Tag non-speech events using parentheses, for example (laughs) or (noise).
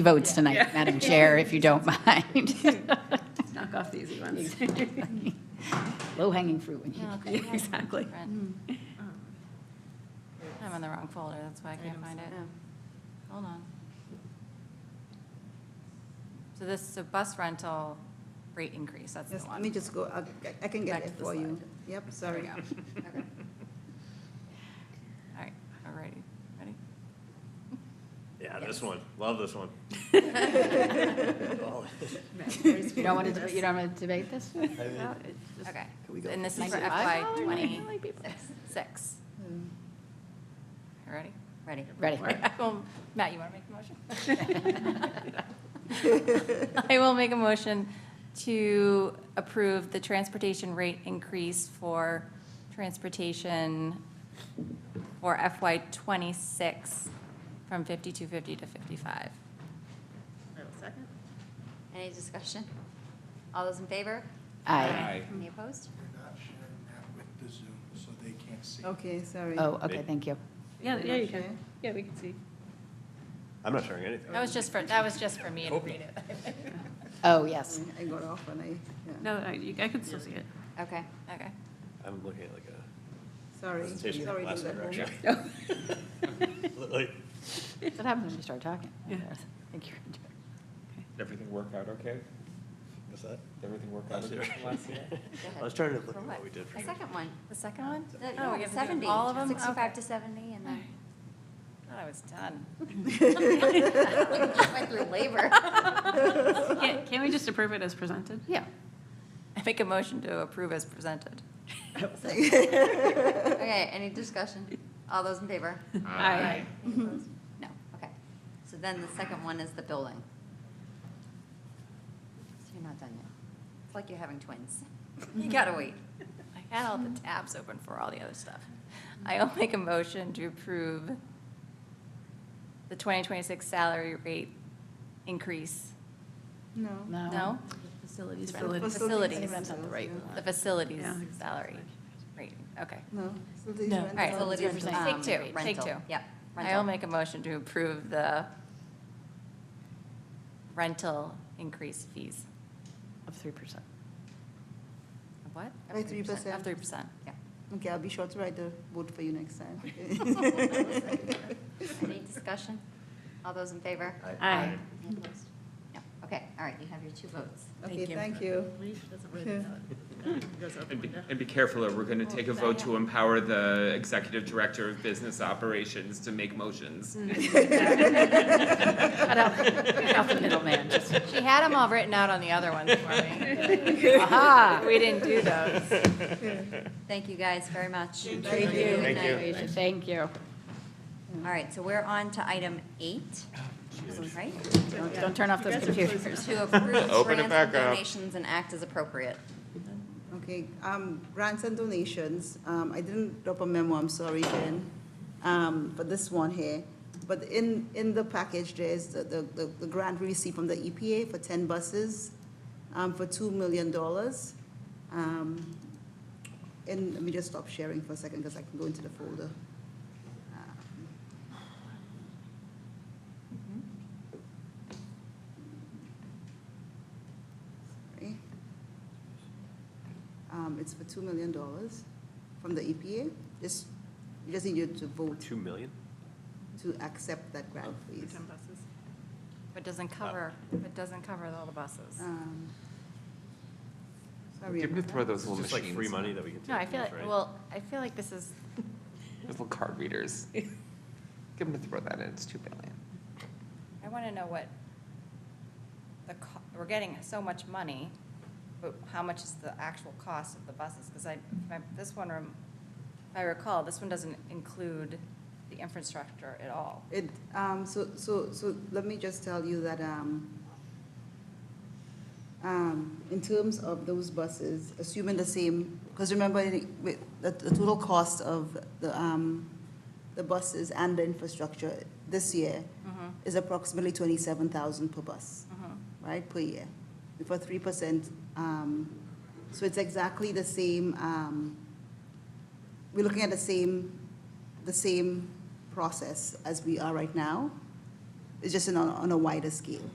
votes tonight, Madam Chair, if you don't mind. (laughs) knock off the easy ones. Low-hanging fruit when you No, okay, (laughs) yeah, Exactly. right. Um, I'm in the wrong folder, that's why I can't find it. Hold on. So this, so bus rental rate increase, that's the Yes, let me one. just go, I'll- I can Back to get it the for you. slide. Yep, There we sorry. go. All right, all righty, ready? Yeah, this one, love this one. (laughs) You don't want to, you don't want to debate this? Okay, Can we go and this is for FY $95? twenty-six. You ready? Ready. Ready. (laughs) Well, Matt, you want to make the (laughs) motion? (laughs) I will make a motion to approve the transportation rate increase for transportation for FY twenty-six from fifty-two fifty to fifty-five. Any discussion? All those in favor? Aye. Any opposed? We're not sharing that with the Zoom, so they can't see. (laughs) Okay, sorry. Oh, okay, thank you. Yeah, yeah, you can. Okay. Yeah, we can see. I'm not sharing anything. That was just for, that was just for me to read it. Oh, (laughs) yes. I got off and I, yeah, No, I, you- I can still see it. Okay. Okay. I'm looking at like a sorry. presentation Sorry from to last that night, moment. actually. Look (laughs) like- That's what happens when you start talking. Yeah. Thank you. Everything work out okay? What's that? Did everything work out Last year. okay from (laughs) last year? I was trying to look For at what? what we did. for The you. second one. The second one? The- Oh, no, we have to do 70, All of them? 65 Okay. to 70, and then Thought I was (laughs) done. (laughs) went through labor. Can't, can't we just approve it as presented? Yeah. I make a motion to approve as presented. Okay, any discussion? All those in favor? (laughs) Aye. Any opposed? No, okay. So then the second one is the building. So you're not done yet. It's like you're having twins. (laughs) You gotta wait. I had all the tabs open for all the other stuff. I'll make a motion to approve the 2026 salary rate increase. No. No? Facilities. Facilities. Facilities. That's not the right The facilities Yeah. salary rate, okay. No. So these No. went All right, down so let's to- Take Um, two, take rental. two. Yep. I'll rental. make a motion to approve the rental increase fees. Of 3%. Of What? By 3%. Of 3%. Yeah. Okay, I'll be sure to write the vote for you next (laughs) time. Any discussion? All those in favor? Aye. (laughs) Any opposed? No. Okay, all right, you have your two votes. Okay, thank you. And be- and be careful, or we're gonna take a vote to empower the executive director of business operations to make motions. (laughs) Cut out, cut (laughs) out the middleman, just, She had them all written out on the other ones for me. aha. (laughs) We didn't do those. Thank you guys very much. Thank you. Good Thank you. night. Thank you. All right, so we're on to item eight, right? Don't don't turn off those computers. To approve (laughs) Open it grants back and up. donations and act as appropriate. Okay, um, grants and donations, um, I didn't drop a memo, I'm sorry, Jen, um, for this one here. But in, in the package, there's the, the, the- the grant we received from the EPA for ten buses, um, for two million dollars. Um, and let me just stop sharing for a second, because I can go into the folder. Um, Sorry. Um, it's for two million dollars from the E EPA. Just, you just need you to Uh, vote Two million? to accept that grant, please. It doesn't cover, it doesn't cover all the buses. Um, Sorry. Give me about throw that. those It's little just like free machines, money that we can take. No, I feel from us, like, right? well, I feel like this is, those little card readers. Give them to throw that in, it's two billion. I want to know what the, co- we're getting so much money, but how much is the actual cost of the buses? Because I, my- this one, rem- if I recall, this one doesn't include the infrastructure at all. It, um, so, so, so let me just tell you that, um, um, in terms of those buses, assuming the same, because remember, the- with, the, the total cost of the, um, the buses and the infrastructure this year is approximately twenty-seven thousand per bus, right, per year, for three percent. Um, so it's exactly the same, um, we're looking at the same, the same process as we are right now. It's just in a- on a wider scale.